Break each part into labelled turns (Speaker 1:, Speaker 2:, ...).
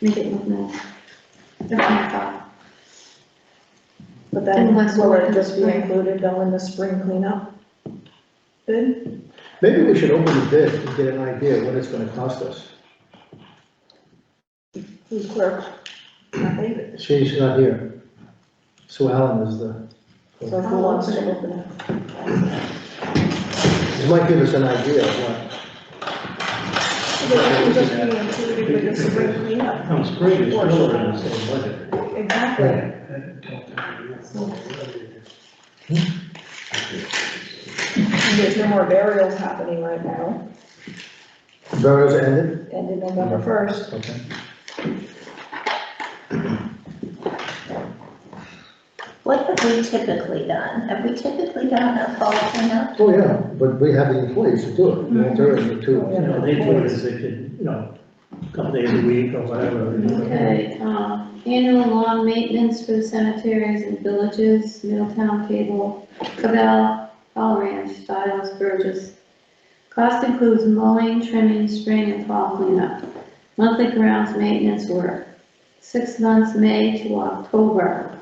Speaker 1: make it look nice. That's my thought.
Speaker 2: But
Speaker 1: And
Speaker 2: then,
Speaker 1: that's
Speaker 2: will
Speaker 1: what
Speaker 2: it
Speaker 1: we
Speaker 2: just be
Speaker 1: can-
Speaker 2: included though in the spring cleanup? Good,
Speaker 3: Maybe we should open the bid and get an idea of what it's gonna cost us.
Speaker 2: who's clerk? Nothing.
Speaker 3: She's not here. Sue Allen is the,
Speaker 2: So who wants to open it?
Speaker 3: it might give us an idea of what,
Speaker 2: But it would just be included with the spring cleanup,
Speaker 4: Come spring, it's still around the same budget.
Speaker 2: exactly. And There's no more burials happening right now,
Speaker 3: burials ended?
Speaker 2: ended November first.
Speaker 3: Okay.
Speaker 5: What have we typically done? Have we typically done a fall cleanup?
Speaker 3: Oh, yeah, but we have the employees to do it, the attorney to,
Speaker 2: Oh,
Speaker 4: You
Speaker 2: yeah.
Speaker 4: know, they do it as they could, you know, a couple days a week or whatever. you know.
Speaker 1: Okay, um, annual lawn maintenance for the cemeteries and villages, Middletown Cable, Cabell, Fall Ranch, Stiles, Burgess. Cost includes mowing, trimming, spring and fall cleanup. Monthly grounds maintenance work, six months, May to October.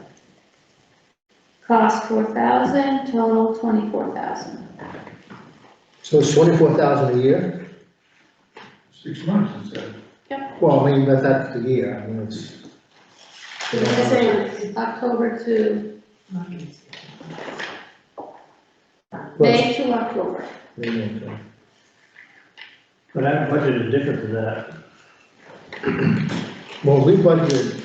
Speaker 1: Cost four thousand, total twenty-four thousand.
Speaker 3: so it's twenty-four thousand a year?
Speaker 6: Six months instead.
Speaker 3: Well, I mean, that, that's the year, I mean, it's.
Speaker 1: October to,
Speaker 3: Well, it's-
Speaker 1: May to October.
Speaker 4: But our budget is different than that.
Speaker 3: Well, we budgeted,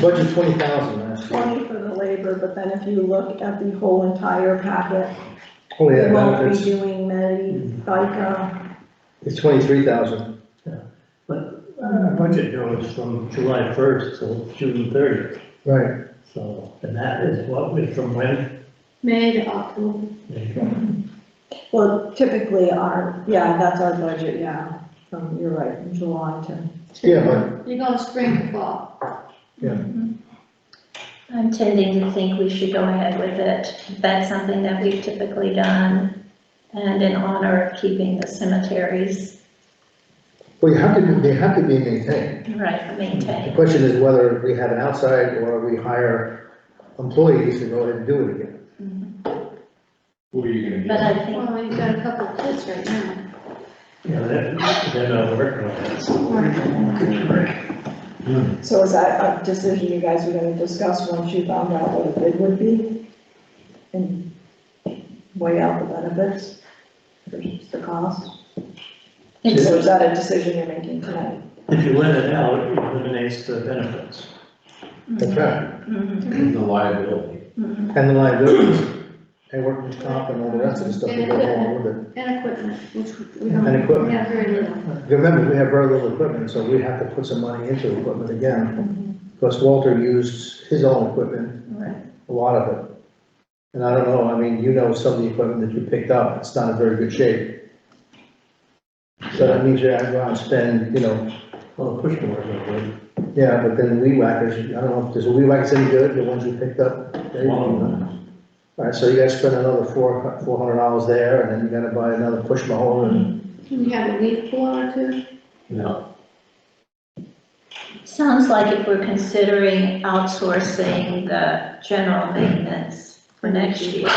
Speaker 3: budgeted twenty thousand last year.
Speaker 2: Twenty for the labor, but then if you look at the whole entire packet,
Speaker 3: Oh,
Speaker 2: we
Speaker 3: yeah,
Speaker 2: won't be
Speaker 3: benefits,
Speaker 2: doing Medi, FICA,
Speaker 3: it's twenty-three thousand.
Speaker 4: Our budget goes from July first till June thirtieth,
Speaker 3: Right.
Speaker 4: so, and that is what, is from when?
Speaker 1: May to October.
Speaker 2: Well, typically our, yeah, that's our budget, yeah, from, you're right, from July to.
Speaker 3: Yeah, but-
Speaker 1: You go spring to fall.
Speaker 5: Mm-hmm. I'm tending to think we should go ahead with it. That's something that we've typically done. And in honor of keeping the cemeteries,
Speaker 3: Well, you have to, be- they have to be maintained.
Speaker 5: right,
Speaker 3: The
Speaker 5: maintained.
Speaker 3: question is whether we have an outside or we hire employees to go ahead and do it again.
Speaker 6: Who are you gonna
Speaker 5: But
Speaker 6: get?
Speaker 5: I think,
Speaker 1: Well, you've got a couple kids right now.
Speaker 4: You know, that, they're not working on that, so.
Speaker 2: So is that a decision you guys were gonna discuss once you found out what a bid would be? And weigh out the benefits versus the cost? Or is
Speaker 5: it's,
Speaker 2: that a decision you're making tonight?
Speaker 4: If you let it out, it eliminates the benefits.
Speaker 3: That's right.
Speaker 5: mhm,
Speaker 6: The liability.
Speaker 5: mhm.
Speaker 3: And the liabilities, and workers' comp and all the rest of the stuff that goes along with it.
Speaker 1: And equipment, which we don't.
Speaker 3: And equipment.
Speaker 1: We have very little.
Speaker 3: Remember, we have very little equipment, so we have to put some money into equipment again. Because Walter used his own equipment,
Speaker 5: right.
Speaker 3: a lot of it. And I don't know, I mean, you know some of the equipment that you picked up, it's not in very good shape. So that means you have to go out and spend, you know,
Speaker 4: Well, the push more, but
Speaker 3: Yeah, but then the weed whackers, I don't know, does the weed whackers any good, the ones you picked up? They-
Speaker 4: Wow.
Speaker 3: Alright, so you gotta spend another four, four hundred dollars there, and then you gotta buy another push mower and.
Speaker 1: Can you have a leaf blower too?
Speaker 5: Sounds like if we're considering outsourcing the general maintenance for next year,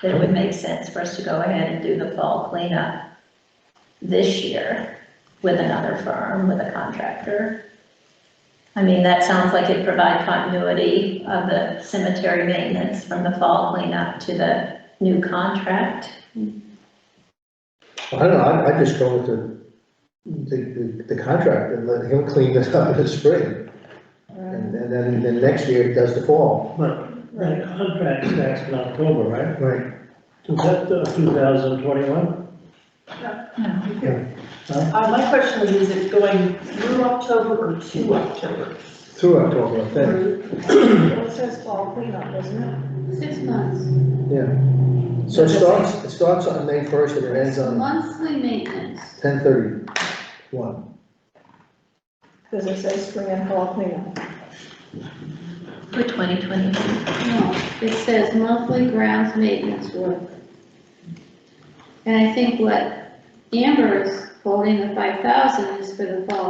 Speaker 5: that it would make sense for us to go ahead and do the fall cleanup this year with another firm, with a contractor. I mean, that sounds like it provide continuity of the cemetery maintenance from the fall cleanup to the new contract.
Speaker 3: I don't know, I, I just go with the, the, the- the contract and let him clean it up in the spring. And and then, then next year he does the fall.
Speaker 4: but that contract starts in October, right?
Speaker 3: Right.
Speaker 4: Is that uh, two thousand twenty-one?
Speaker 7: Uh, my question is, is it going through October or to October?
Speaker 3: Through October, I think,
Speaker 2: Well, it says fall cleanup, doesn't it?
Speaker 1: Six months.
Speaker 3: yeah. So it starts, it starts on May first and it ends on
Speaker 1: Monthly maintenance.
Speaker 3: ten thirty one.
Speaker 2: Does it say spring and fall cleanup?
Speaker 5: For 2022.
Speaker 1: No, it says monthly grounds maintenance work. And I think what Amber is quoting, the five thousand, is for the fall